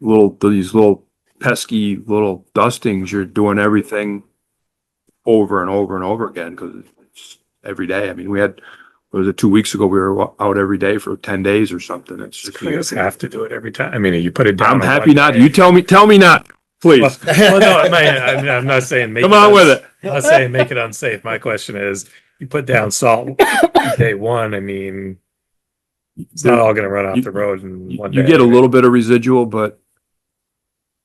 little, these little pesky little dustings, you're doing everything over and over and over again, cause it's every day. I mean, we had, what was it, two weeks ago, we were out every day for ten days or something. It's just. You just have to do it every time. I mean, you put it down. I'm on happy one not, day. you tell me, tell me not, Well, please. well, no, I'm not, I'm not- I'm not saying. make Come on with uns- it. I'm not saying make it unsafe. My question is, you put down salt day one, I mean, it's not all gonna run off You- the road in You one day. you get a little bit of residual, but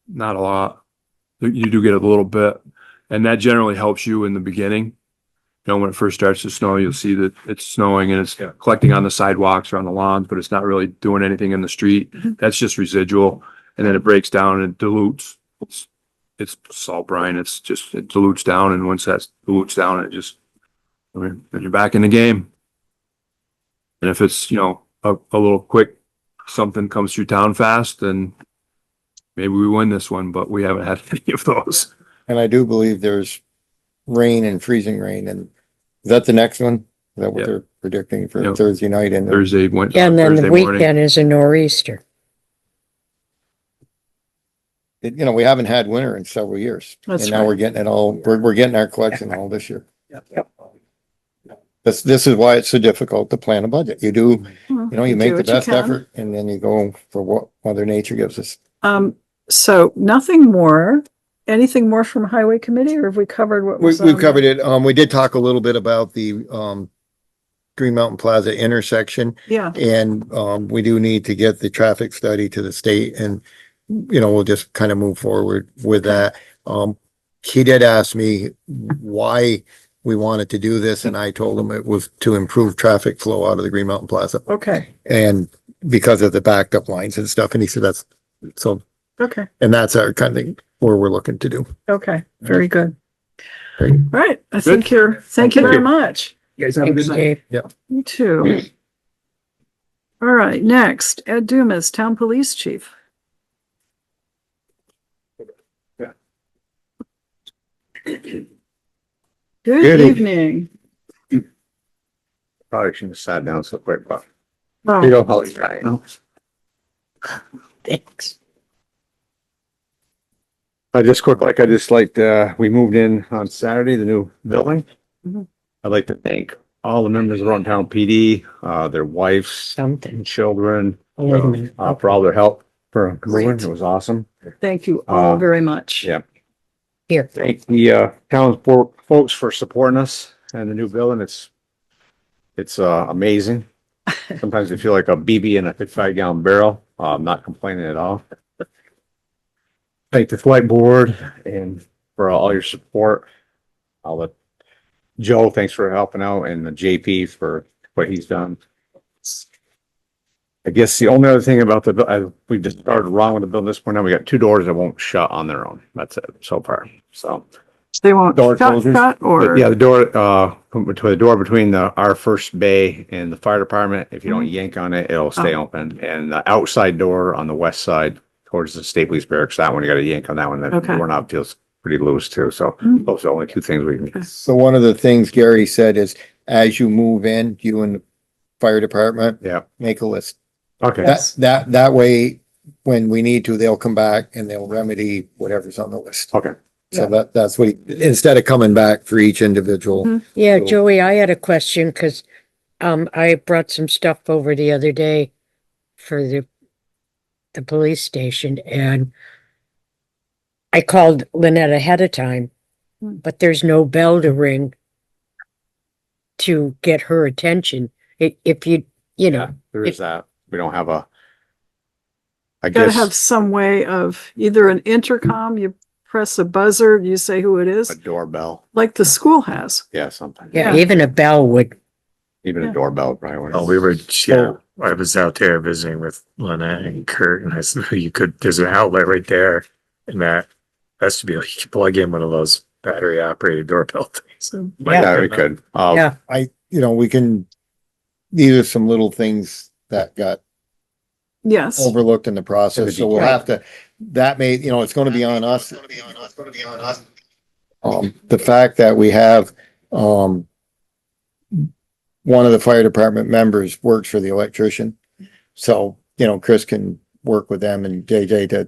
not a lot. You- You do get a little bit, and that generally helps you in the beginning. You know, when it first starts to snow, you'll see that it's snowing and it's Yeah. collecting on the sidewalks or on the lawns, but it's not really doing anything in the street. That's just residual, and then it breaks down and it dilutes. It's- It's salt brine, it's just, it dilutes down, and once that dilutes down, it just, I mean, then you're back in the game. And if it's, you know, a, a little quick something comes through town fast, then maybe we win this one, but we haven't had any of those. And I do believe there's rain and freezing rain and is that the next one? Is that Yeah. what they're predicting Yeah. for Thursday night and Thursday went. Yeah, And then the Thursday morning. weekend is a nor'easter. it- you know, we haven't had winter in several years. That's And now we're getting it all, we're, we're getting our collection all this year. Yep. This, this is why it's so difficult to plan a budget. You do, you Mhm. know, you You make do the what you best can. effort and then you go for what mother nature gives us. Um, so nothing more, anything more from highway committee or have we covered what We, was? we've on- covered it. Um, we did talk a little bit about the, um, Green Mountain Plaza intersection. Yeah, And um, we do need to get the traffic study to the state and, you know, we'll just kind of move forward with that. Um, he did ask me why we wanted to do this and I told him it was to improve traffic flow out of the Green Mountain Plaza okay, and because of the backed up lines and stuff. And he said that's, so, okay, and that's our kind of thing where we're looking to do. okay, very good. All Great. right, I think you're, thank you Thank very you. much. Thanks, Dave. You too. All right, next, Ed Dumas, Town Police Chief. Good Good evening. evening. Probably shouldn't have sat down so quick, but Oh, you know how it's right. Thanks. I just quick, like I just like, uh, we moved in on Saturday, the new building. Mhm. I'd like to thank all the members of Run Town PD, uh, their wives Something. and children, Oh, wait a minute. uh, for all their help for moving. Great. It was awesome. Thank you all Uh, very much. yeah. Here. Thank the, uh, town fo- folks for supporting us and the new building. It's, it's, uh, amazing. Sometimes I feel like a BB in a fifty-five gallon barrel. Uh, I'm not complaining at all. Thank the flight board and for all your support. I'll let Joe, thanks for helping out and the JP for what he's done. I guess the only other thing about the, bu- I, we just started wrong with the building this point. Now we got two doors that won't shut on their own. That's it so far. So, They won't Door shut, closers? shut or? but yeah, the door, uh, between the door between the, our first bay and the fire department, if you Mm-hmm. don't yank on it, it'll Oh. stay open. And the outside door on the west side towards the Staples Barracks, that one, you gotta yank on that one. That Okay. doorknob feels pretty loose too. So Mm. those are the only two things we can, So one of the things Gary said is as you move in, you and the fire department, yeah. make a list. Okay. That, that, that way, when we need to, they'll come back and they'll remedy whatever's on the list. Okay. So that, that's what, he- instead of coming back for each individual. Mhm. Yeah, So- Joey, I had a question because um I brought some stuff over the other day for the the police station and I called Lynette ahead of time, Hmm. but there's no bell to ring to get her attention. If if you you know, There is that. We don't have a. I Gotta have guess some way of either an intercom, you press a buzzer, you say who it a is, doorbell. like the school has. Yeah, something. yeah, Yeah. even a bell would Even Yeah. a doorbell probably. wouldn't- Oh, we were, yeah, I was out there visiting with Lynette and Kurt and I said, you could, there's an outlet right there in that vestibule. You could plug in one of those battery operated doorbell things. Yeah, we could. Yeah. Uh, I, you know, we can, these are some little things that got Yes, overlooked in the process, so we'll have to, that may, you know, it's gonna be on us. Um, the fact that we have, um, one of the fire department members works for the electrician, so, you know, Chris can work with them and JJ to